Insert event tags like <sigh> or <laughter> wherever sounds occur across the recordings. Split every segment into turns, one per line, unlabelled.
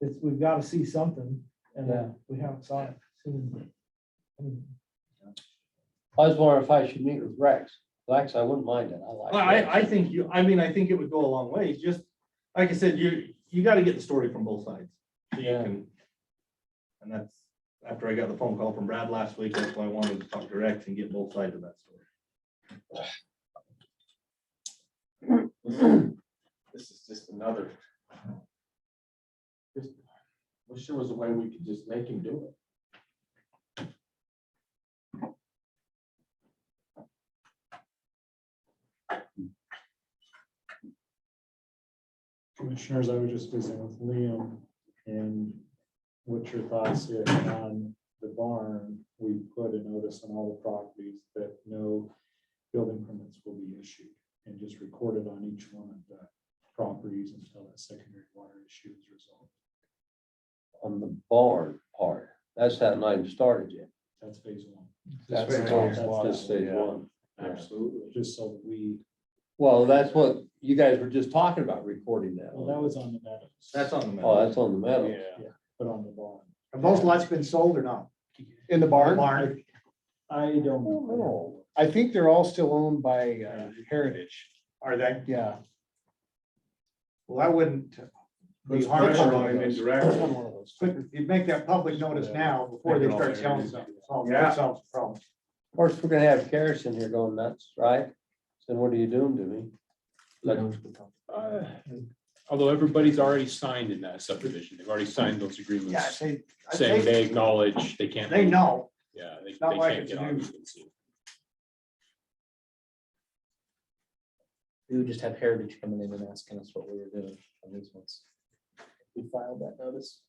it's, we've got to see something and uh,
Yeah.
we haven't saw it. soon. And-
I was wondering if I should meet with Rex. Rex, I wouldn't mind it. I like.
Well, I,
Rex.
I think you, I mean, I think it would go a long way, just, like I said, you, you gotta get the story from both sides. So you
Yeah.
can. And that's, after I got the phone call from Brad last week, that's why I wanted to talk direct and get both sides of that story.
This is just another. Just Wish there was a way we could just make him do it.
Commissioners, I was just visiting with Liam and what's your thoughts if on the barn? We put a notice on all the properties that no building permits will be issued and just recorded on each one of the properties until that secondary water issue is resolved.
On the barn part, that's that not even started yet.
That's phase one.
That's
phase
all-
one.
that's just stage one.
Absolutely.
Just so that we,
Well, that's what you guys were just talking about recording that.
well, that was on the meadows.
That's on the map.
Oh, that's on the metal.
But on the barn.
Have those lots been sold or not? In the barn?
Barn. I don't know.
Oh,
I think they're all still owned by uh, Heritage.
Are they?
Yeah. Well, I wouldn't.
Puts pressure on him indirectly.
you make that public notice now before they start selling something. Solves- that
Yeah.
solves the problem.
Of course, we're gonna have Karis in here going nuts, right? Then what are you doing to me? Like,
Uh, Although everybody's already signed in that subdivision, they've already signed those
Yeah,
agreements
they,
saying
they,
they acknowledge they can't.
they know.
Yeah, they, they
not like
can't
it's
get
new.
occupancy.
We would just have Heritage coming in and asking us what we were doing on these ones. We filed that notice.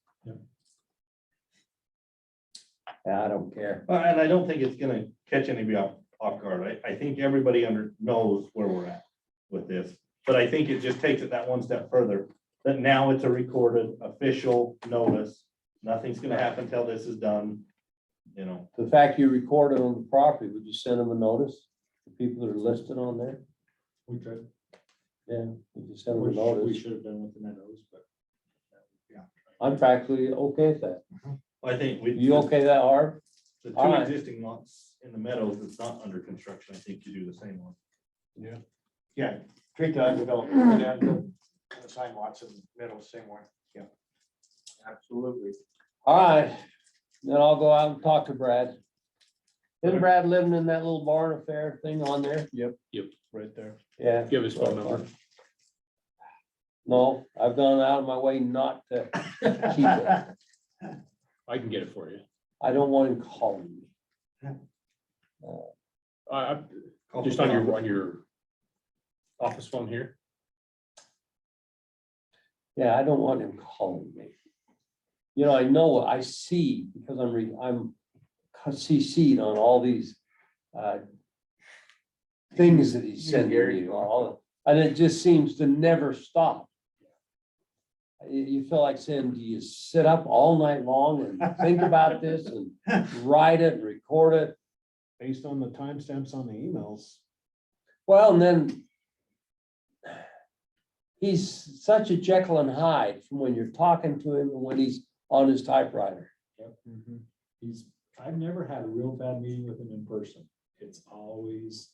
I don't care.
Well, Uh, and I don't think it's gonna catch anybody off, off guard. I, I think everybody under, knows where we're at with this. But I think it just takes it that one step further, that now it's a recorded official notice. Nothing's gonna happen until this is done, you know.
The fact you recorded on the property, would you send them a notice? The people that are listed on there?
We could,
Yeah. Would you send them a
we should- we
notice?
should have been with the meadows, but.
I'm practically okay with that.
I think we.
You okay with that, Harv?
The two
Alright.
existing lots in the meadows that's not under construction, I think you do the same one.
Yeah, treat the undeveloped, the sign lots in the middle, same way.
<laughs> Absolutely.
All right, then I'll go out and talk to Brad. Isn't Brad living in that little barn affair thing on there? Yep.
Yep.
Right there. Yeah.
Give his phone number.
No, I've gone out of my way not to keep it.
I can get it for you.
I don't want him calling me.
I, I- just on your, on your office phone here.
Yeah, I don't want him calling me. You know, I know, I see, because I'm, re- I'm CC'd on all these uh, things that he's sending me, all, and it just seems to never stop. You, you feel like saying, do you sit up all night long and think about this
<laughs>
and write it, and record it?
Based on the timestamps on the emails.
Well, and then he's such a Jekyll and Hyde from when you're talking to him and when he's on his typewriter.
He's, I've never had a real bad meeting with him in person. It's always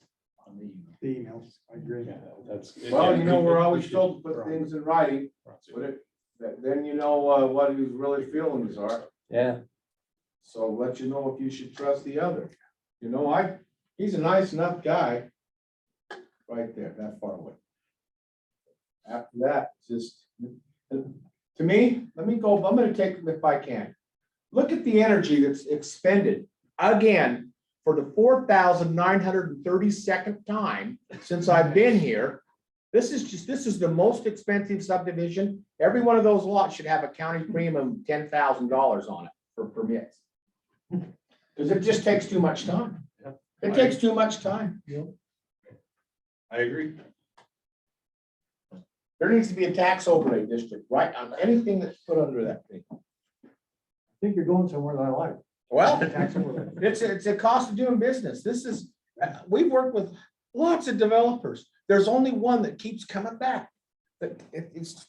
on the email.
The emails, I agree.
Yeah, that's.
Well, you know, we're always told to put things in writing, but
Well,
it, that- then you know uh, what his really feelings are.
Yeah,
So let you know if you should trust the other. You know, I, he's a nice enough guy. Right there, that far away. After that, just, to me, let me go, I'm gonna take them if I can.
Look at the energy that's expended again for the four thousand nine hundred and thirty-second time since I've been here. This is just, this is the most expensive subdivision. Every one of those lots should have a county premium of ten thousand dollars on it for permits. Because it just takes too much time. It takes too much time.
I agree.
There needs to be a tax overlay district, right, on anything that's put under that thing.
I think you're going somewhere that I like.
<laughs> Well, it's, it's a cost of doing business. This is, uh, we've worked with lots of developers. There's only one that keeps coming back. But it- it's